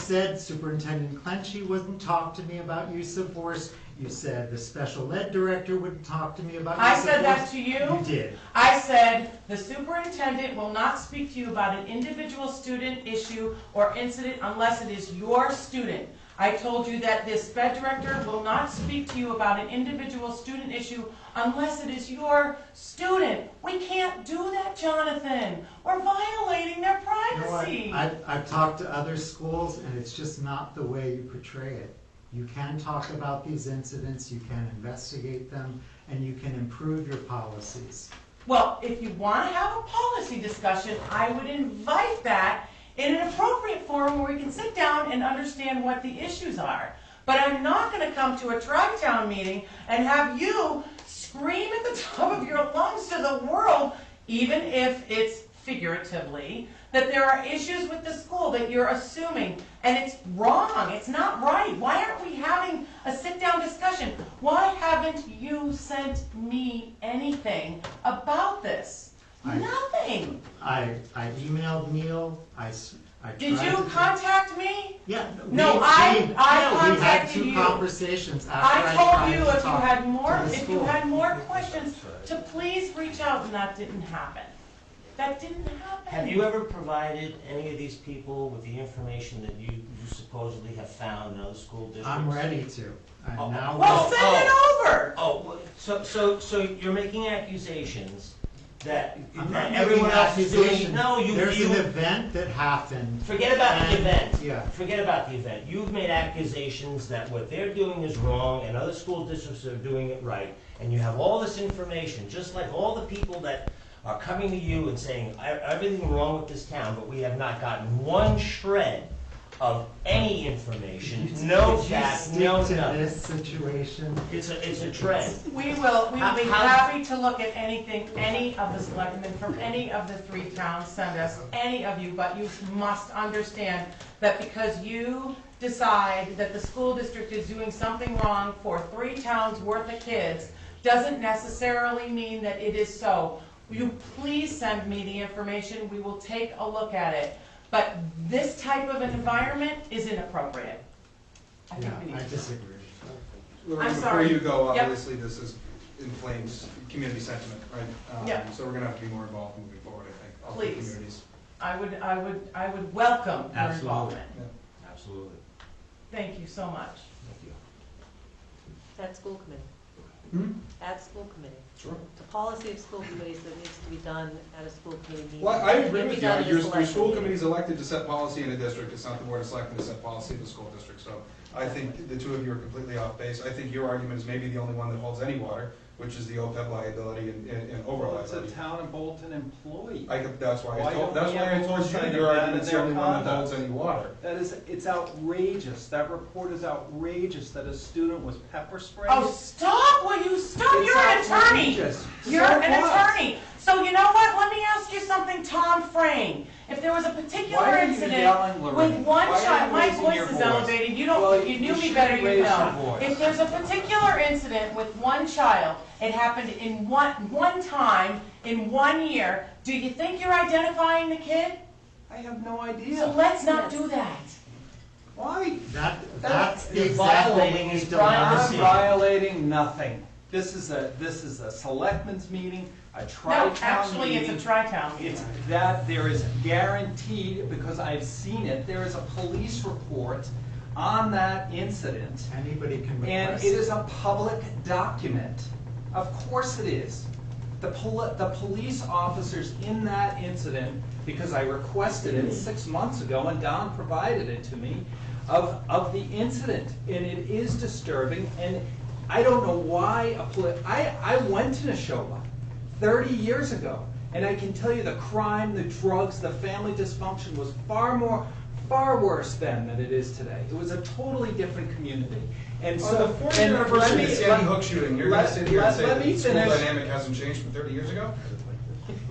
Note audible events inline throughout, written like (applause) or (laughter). said Superintendent Clenchey wouldn't talk to me about use of force. You said the special ed director wouldn't talk to me about I use of force. said that to you. You did. I said, "The superintendent will not speak to you about an individual student issue or incident unless it is your student." I told you that this sped director will not speak to you about an individual student issue unless it is your student. We can't do that, Jonathan. We're violating their You know what? privacy. I've, I've talked to other schools and it's just not the way you portray it. You can talk about these incidents, you can investigate them, and you can improve your policies. Well, if you want to have a policy discussion, I would invite that in an appropriate forum where we can sit down and understand what the issues are. But I'm not going to come to a tri-town meeting and have you scream at the (laughs) top of your lungs to the world, even if it's figuratively, that there are issues with the school that you're assuming, and it's wrong, it's not right. Why aren't we having a sit-down discussion? Why haven't you sent me anything about this? I- Nothing. I, I emailed Neil, I, s- I tried Did you to- contact me? Yeah. No, we- I- we- I yeah, contacted We you. had two conversations after I I told tried you to if you talk had more, to the if you school. had more questions, to please reach out, and that didn't happen. That didn't happen. Have you ever provided any of these people with the information that you you supposedly have found in other school districts? I'm ready to. I'm Oh, now. Well, Oh, send it over. Oh, well, so, so, so you're making accusations that I'm not that making everyone else is doing? accusations. No, you, There's an you, event that happened. forget about the and- event. Yeah. Forget about the event. You've made accusations that what they're doing is wrong and other school districts are doing it right. And you have all this information, just like all the people that are coming to you and saying, "E- everything wrong with this town, but we have not gotten one shred of any information, no Could you fact, stick no to nothing. this situation? It's a, it's a trend. We will, we will be How- how- happy to look at anything, any of the selectmen from any of the three towns send us, any of you, but you must understand that because you decide that the school district is doing something wrong for three towns worth of kids, doesn't necessarily mean that it is so. Will you please send me the information, we will take a look at it. But this type of an environment is inappropriate. I Yeah, think we I need to. disagree. Lorraine, before sorry. you go, Yep. obviously, this is inflames community sentiment, right? Um, Yeah. So we're gonna have to be more involved moving forward, I think, all three Please. communities. I would, I would, I would welcome your Absolutely. involvement. Absolutely. Thank you so much. Thank you. At school committee. Hmm? At school committee. Sure. The policy of school committees that needs to be done at a school committee meeting. Well, I agree It with you, can be done at a your, your select school meeting. committee's elected to set policy in a district, it's not the board of selectmen to set policy in the school district, so I think the two of you are completely off base, I think your argument is maybe the only one that holds any water, which is the OPEB liability and, and and overall Well, it's a liability. town and Bolton employee. I could, that's why I Why told, don't that's we why I have told you oversight that of your that and argument's the their only one that holds conduct? any water. That is, it's outrageous, that report is outrageous, that a student was pepper sprayed. Oh, stop, will you stop? It's You're an attorney. outrageous. You're So an what? attorney. So you know what? Let me ask you something, Tom Frame. If there was a particular Why are you incident yelling, with Lorraine? one Why are child, you my raising your voice is voice? elevated, you don't, Well, if you you knew me shouldn't better, raise you your know. voice. If there's a particular incident with one child, it happened in one, one time, in one year, do you think you're identifying the kid? I have no So idea, let's not do that. why? That, that's the You're exact violating thing his we don't I'm privacy. understand. violating nothing, this is a, this is a selectmen's meeting, a No, tri-town actually, meeting. it's a tri-town meeting. It's that there is guaranteed, because I've seen it, there is a police report on that incident. Anybody can And request. it is a public document. Of course it is. The poli, the police officers in that incident, because I requested it six months ago and Don provided it to me, of, of the incident. And it is disturbing and I don't know why a poli, I, I went to Neshoba thirty years ago. And I can tell you the crime, the drugs, the family dysfunction was far more, far worse then than it is today. It was a totally different community. And On so. the fourth uh, and anniversary of let me- the let- Sandy Hook shooting, you're gonna let- sit here and let- say let that me the school finish. dynamic hasn't changed from thirty years ago?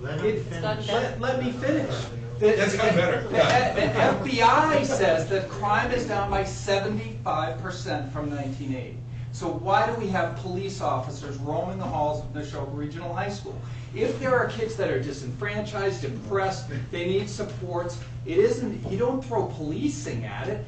Let him It's not finish. that- Let, let me finish. The- That's gotten better, the- yeah. The FBI says that crime is down by seventy-five percent from nineteen eighty. So why do we have police officers roaming the halls of Neshoba Regional High School? If there are kids that are disenfranchised, depressed, they need supports, it isn't, you don't throw policing at it.